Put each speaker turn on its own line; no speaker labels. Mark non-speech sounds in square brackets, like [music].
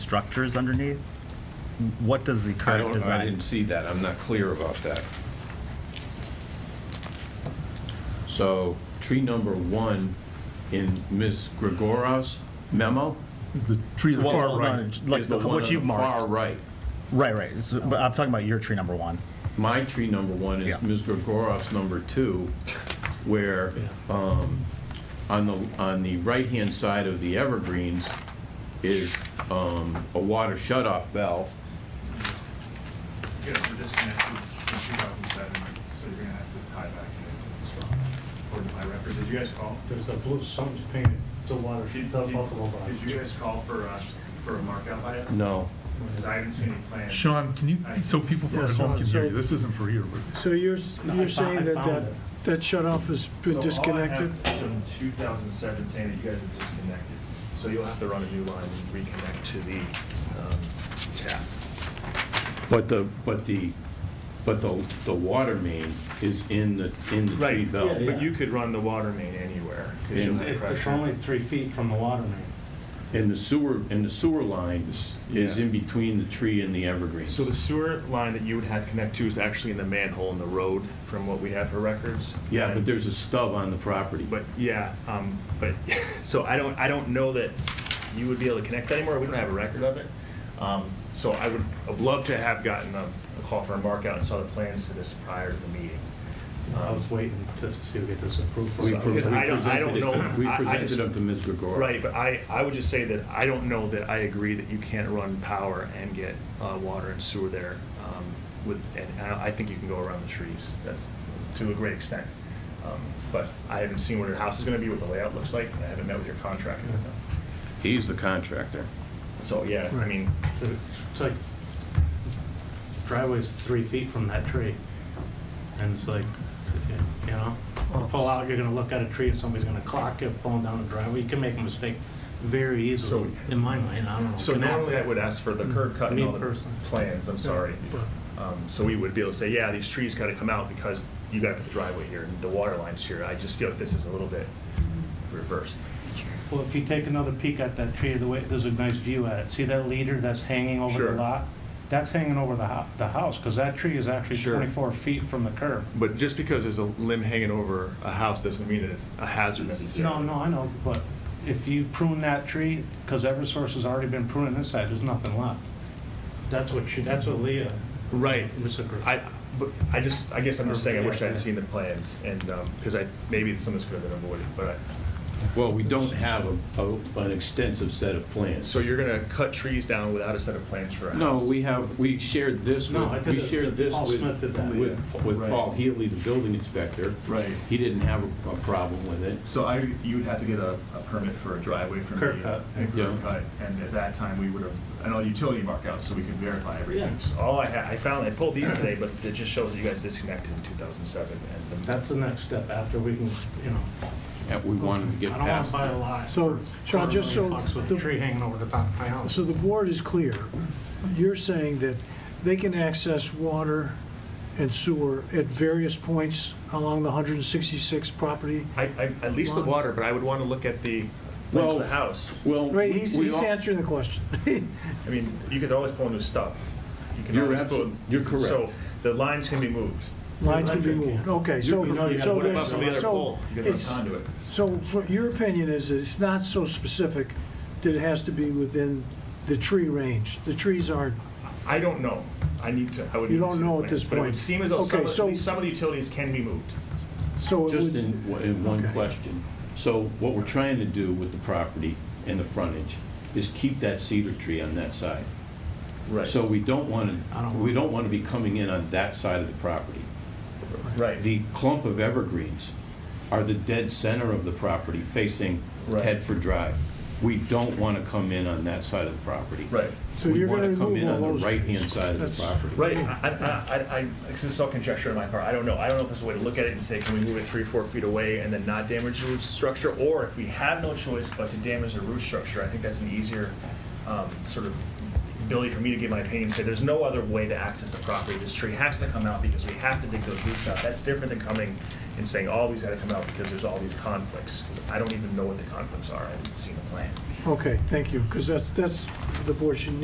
structures underneath? What does the
I
current
don't, I
design?
didn't see that, I'm not clear about that. So, tree number one in Ms. Gregorov's memo
The tree to the
Well,
far
hold
right.
on,
is
Like the-
the one on
what
the
you've
far
marked.
right.
Right, right. So- But I'm talking about your tree number one.
My tree number one
Yeah.
is Ms. Gregorov's number two, where um, on the, on the right-hand side of the evergreens is um, a water shut-off valve.
You know, we're disconnected in 2007, so you're gonna have to tie back in as well. According to my record, did you guys call?
There's a blue, something's painted, the water,
Did-
the
did-
Buffalo
Did you
by.
guys call for, uh, for a markup by us?
No.
Because I haven't seen any plans.
Sean, can you, so people from
Yeah,
at home
Sean,
can hear
so-
you, this isn't for here, but.
So you're,
No, I
you're
fo- I
saying that
found
that,
it. uh,
that shut-off has
So
been
all I have
disconnected?
is in 2007 saying that you guys are disconnected, so you'll have to run a new line and reconnect to the um, tap.
But the, but the, but the, the water main is in the, in the tree
Right,
belt.
but you could run the water main anywhere, because you'll
And-
have
It's
pressure.
only three feet from the water main.
And the sewer, and the sewer line is is in between the tree and the evergreen.
So the sewer line that you would have connect to is actually in the manhole in the road, from what we have for records.
Yeah, but
And-
there's a stub on the property.
But, yeah, um, but, [laughs] so I don't, I don't know that you would be able to connect that anymore, we don't have a record of it. Um, so I would, I'd love to have gotten a, a call for a mark out and saw the plans to this prior to the meeting.
I
Oh.
was waiting to see if we get this approved. for
We
something.
pre-
because
we
I don't- I don't
presented it-
know.
We
I- I
presented
just-
it to Ms. Gregorio.
Right, but I, I would just say that I don't know that I agree that you can't run power and get, uh, water and sewer there, um, with, and I, I think you can go around the trees, that's, to a great extent. Um, But I haven't seen what your house is gonna be, what the layout looks like, and I haven't met with your contractor.
He's the contractor.
So, yeah, I
Right.
mean,
It's like, driveway's three feet from that tree. And it's like, you know, pull out, you're gonna look at a tree and somebody's gonna clock you pulling down the driveway. You can make a mistake very easily,
So-
in my mind, I don't know.
so
Can happen.
normally I would ask for the curb cut and all
Me
the
personally.
plans, I'm sorry. Um, So we would be able to say, yeah, these trees gotta come out because you gotta put the driveway here and the water line's here. I just feel like this is a little bit reversed.
Well, if you take another peek at that tree, the way, there's a nice view at it. See that leader that's hanging over
Sure.
the lot? That's hanging over the hou- the house, because that tree is actually
Sure.
24 feet from the curb.
But just because there's a limb hanging over a house doesn't mean that it's a hazard
No,
necessarily.
no, I know, but if you prune that tree, because Eversource has already been pruning this side, there's nothing left. That's what she, that's what Leah.
Right.
Ms. Agri-
I, but I just, I guess I'm just saying, I wish I had seen the plans and, um, because I, maybe some of this could have been avoided, but I.
Well, we don't have a, a- an extensive set of plans.
So you're gonna cut trees down without a set of plans for a house?
No, we have, we shared this
No, I
with,
did
we
it.
shared this
Paul
with,
Smith did that.
with with
Right.
Paul Healy, the building inspector.
Right.
He didn't have a a problem with it.
So I, you'd have to get a, a permit for a driveway from the.
Curb cut.
and
Yeah.
curb cut, and at that time, we would have, and all utility markouts, so we could verify everything.
Yeah.
So All I had, I found, I pulled these today, but it just shows that you guys disconnected in two thousand seven and. the-
That's the next step after we can, you know.
And we wanted to get
I don't want
past.
to buy a lot.
So,
for
Sean,
a
just
million
so
bucks With
the-
a tree hanging over the top of my house.
So the board is clear. You're saying that they can access water and sewer at various points along the 166 property?
I, I, at least the
Lawn.
water, but I would wanna look at the, length
Well-
of the house.
Well,
Right,
we-
he's,
we
he's
all-
answering the question.
I mean, you could always pull new stuff. You can
You're
always
abso-
pull-
you're correct.
So the lines can be moved.
Lines can be moved, okay, so.
You know you gotta
so
put
there's-
up another
so
You can run
it's-
conduit.
So for, your opinion is that it's not so specific that it has to be within the tree range? The trees aren't,
I don't know. I need to, I would. need
You
to
don't
see the
know at this
plans, But it would
point.
seem as though some,
Okay,
of- at
so-
least some of the utilities can be moved.
so it
Just
would.
in, in one
Okay.
question. So what we're trying to do with the property and the frontage is keep that cedar tree on that side. So we don't want
I
to,
don't
we don't want to be coming in on that side of the property.
Right.
The clump of evergreens are the dead center of the property facing
Right.
Tedford Drive. We don't want to come in on that side of the property.
Right.
So you're gonna
We want to come
remove
in
all
on
those
the right-hand
trees.
side of the
That's-
property.
Right, I, I, I- I, this is all conjecture on my part, I don't know, I don't know if there's a way to look at it and say, can we move it three, four feet away and then not damage the root structure? Or if we have no choice but to damage the root structure, I think that's an easier, um, sort of ability for me to give my opinion, and say, there's no other way to access the property, this tree has to come out because we have to dig those roots out, that's different than coming and saying, all these gotta come out because there's all these conflicts, 'Cause I don't even know what the conflicts are, I haven't seen the plan.
Okay, thank you, because that's, that's the board should